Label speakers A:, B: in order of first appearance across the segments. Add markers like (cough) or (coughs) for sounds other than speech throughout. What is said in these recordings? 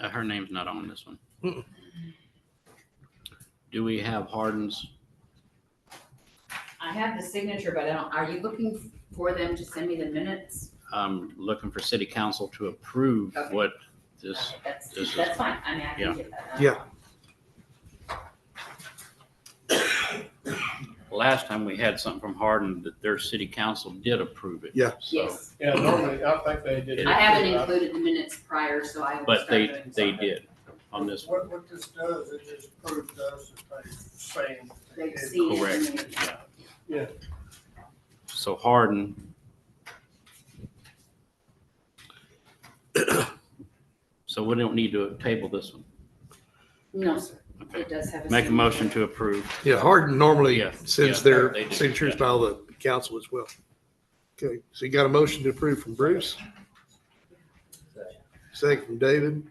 A: Uh, her name's not on this one.
B: Mm-mm.
A: Do we have Hardin's?
C: I have the signature, but I don't, are you looking for them to send me the minutes?
A: I'm um, looking for city council to approve
C: Okay.
A: what this,
C: That's,
A: this is-
C: that's fine, I mean, I
A: Yeah.
C: can get that. done.
B: Yeah.
A: last time we had something from Hardin that their city council did approve it.
B: Yeah.
A: So,
C: Yes,
D: Yeah, normally, I think they did.
C: I haven't included the minutes prior, so I will
A: but
C: start doing
A: they,
C: something.
A: they did on this.
D: What, what this does, it just proves to us that they saying.
C: They've seen it.
A: Correct.
C: and they-
A: Yeah.
D: Yeah.
A: So Hardin. (coughs) So we don't need to table this one.
C: No, sir,
A: Okay.
C: it does have a.
A: Make a motion
C: signature.
A: to approve.
B: Yeah, Hardin normally
A: Yeah,
B: sends
A: yeah,
B: their
A: they do,
B: signatures
A: yeah.
B: by the council as well. Okay, so you got a motion to approve from Bruce? Second from David?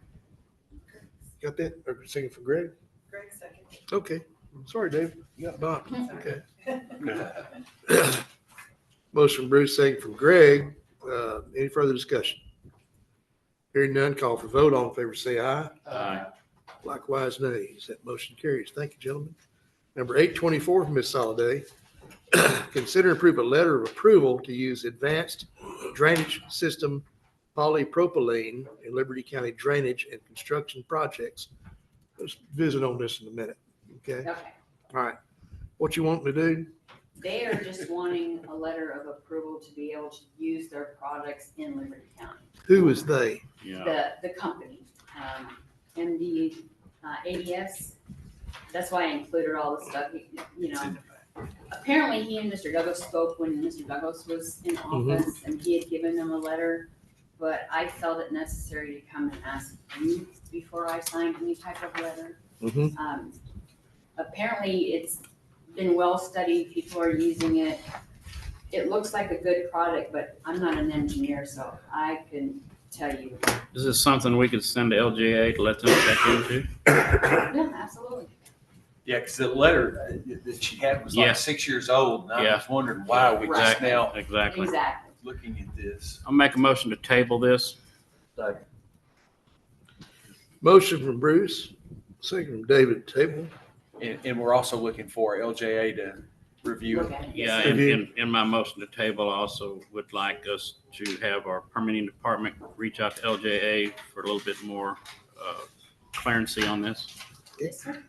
B: Got that? Or second from Greg?
E: Greg second.
B: Okay, sorry, Dave, you got Bob,
C: Mm-hmm.
B: okay. Motion from Bruce, second from Greg, uh, any further discussion? Hearing none, call for vote, all in favor say aye,
D: Uh,
A: Aye.
B: likewise nays, that motion carries, thank you, gentlemen. Number eight twenty-four from Ms. Soliday, (clears throat) consider and approve a letter of approval to use advanced drainage system polypropylene in Liberty County drainage and construction projects. Let's visit on this in a minute, okay?
C: Okay,
B: All right. What you want me to do?
C: they are just wanting a letter of approval to be able to use their products in Liberty County.
B: Who is they?
A: Yeah.
C: the, the company, um, MD, uh, ADS. That's why I included all the stuff, you- you know. Apparently, he and Mr. Douglas spoke when Mr. Douglas was in
B: Mhm.
C: office, and he had given them a letter. But I felt it necessary to come and ask you before I signed any type of letter.
B: Mm-hmm.
C: Um, apparently, it's been well studied, people are using it. It looks like a good product, but I'm not an engineer, so I can tell you.
A: Is this something we could send to LGA to let them check into?
C: Yeah, absolutely.
F: Yeah, because the letter uh, that she had was
A: Yeah.
F: like six years old, and I
A: Yeah.
F: was wondering why we just
A: Exactly.
F: now
A: Exactly.
C: Exactly.
F: looking at this.
A: I'll make a motion to table this.
B: Motion from Bruce, second from David Table.
F: And, and we're also looking for LJA to review
C: Look
F: it.
C: at it.
A: Yeah,
B: sir.
A: and in, in my motion to table, I also would like us to have our permitting department reach out to LJA for a little bit more, uh, clarity on this.
C: Yes, sir.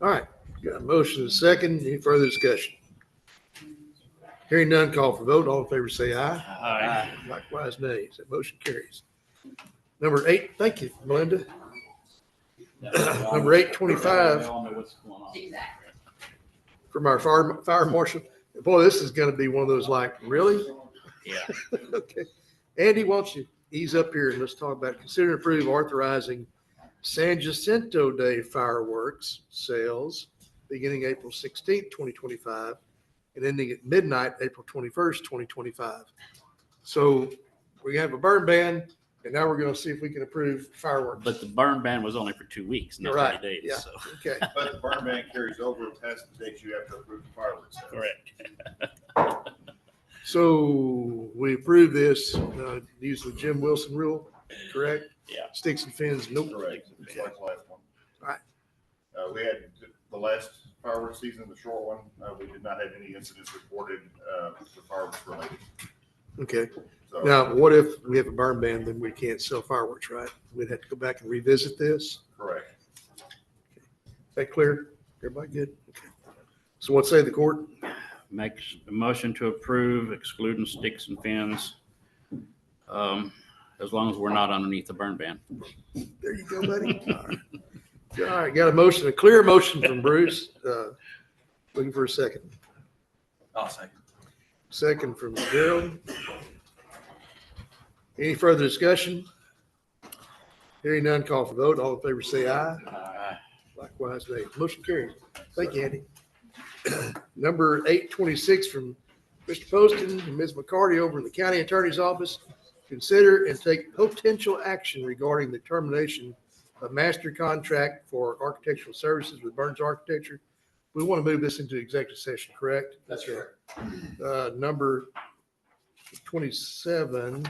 B: All right. Got a motion and a second. Any further discussion? Hearing none, call for vote. All in favor say aye.
A: Aye.
B: Likewise, nays. That motion carries. Number eight, thank you, Melinda. (clears throat) Number eight
A: They
B: twenty-five
A: all know what's going on.
C: Exactly.
B: from our fire, fire marshal. Boy, this is gonna be one of those like, really?
A: Yeah.
B: (laughs) Okay. Andy, why don't you ease up here and let's talk about, consider and approve authorizing San Jacinto Day fireworks sales beginning April sixteenth, twenty twenty-five, and ending at midnight, April twenty-first, twenty twenty-five. So we have a burn ban, and now we're gonna see if we can approve fireworks.
A: But the burn ban was only for two weeks, not
B: Right,
A: thirty
B: yeah.
A: days, so.
B: Okay,
G: But the burn ban carries over past the date you have to approve the fireworks. sales.
B: so we approve this, uh, use the Jim Wilson rule, correct?
A: Yeah.
B: Sticks and fins, nope.
G: Correct, just like the last one.
B: Right.
G: Uh, we had the last fireworks season, the short one, uh, we did not have any incidents reported, uh, for fireworks related,
B: Okay.
G: so.
B: Now, what if we have a burn ban, then we can't sell fireworks, right? We'd have to go back and revisit this. Is
G: Correct.
B: that clear? Everybody good? Okay. So what say the court?
A: Makes a motion to approve excluding sticks and fins. Um, as long as we're not underneath the burn ban.
B: There you go, buddy. All right. All right, got a motion, a clear motion from Bruce. Uh, Looking for a second.
F: I'll second.
B: Second from Gerald. Any further discussion? Hearing none, call for vote. All in favor, say aye.
F: Aye.
B: Likewise, nay. Motion carries. Thank you, Andy. (clears throat) Number eight twenty-six from Mr. Poston and Ms. McCarty over in the county attorney's office. Consider and take potential action regarding the termination of master contract for architectural services with Burns Architecture. We want to move this into executive session, correct?
D: That's right.
B: Uh, number twenty-seven